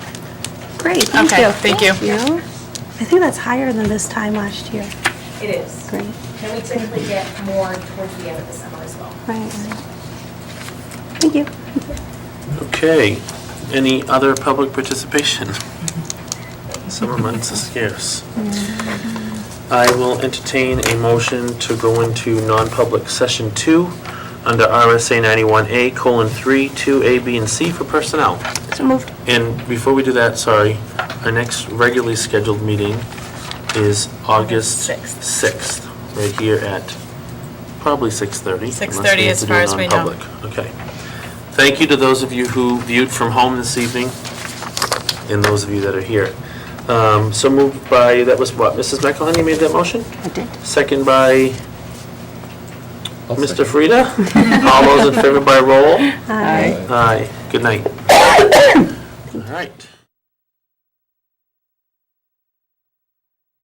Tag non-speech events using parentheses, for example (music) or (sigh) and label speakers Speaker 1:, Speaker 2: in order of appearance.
Speaker 1: Great, thank you.
Speaker 2: Okay, thank you.
Speaker 1: I think that's higher than this time last year.
Speaker 3: It is.
Speaker 1: Great,
Speaker 3: And we typically get more towards the end of the summer as well.
Speaker 1: right. Thank you.
Speaker 4: Okay, any other public participation? Summer months are scarce. I will entertain a motion to go into non-public session two under RSA 91A colon 3, 2A, B, and C for personnel.
Speaker 1: So moved.
Speaker 4: And before we do that, sorry, our next regularly scheduled meeting is August 6th, right here at probably 6:30. unless we
Speaker 2: 6:30
Speaker 4: have
Speaker 2: as
Speaker 4: to do
Speaker 2: far
Speaker 4: it
Speaker 2: as we know.
Speaker 4: non-public. Okay. Thank you to those of you who viewed from home this evening and those of you that are here. Um, So moved by, that was what, Mrs. McElhenney made that motion?
Speaker 1: I did.
Speaker 4: Second by Mr. (laughs) Frida? All those in favor by roll?
Speaker 1: Aye. (coughs)
Speaker 4: Aye. Good night. All right.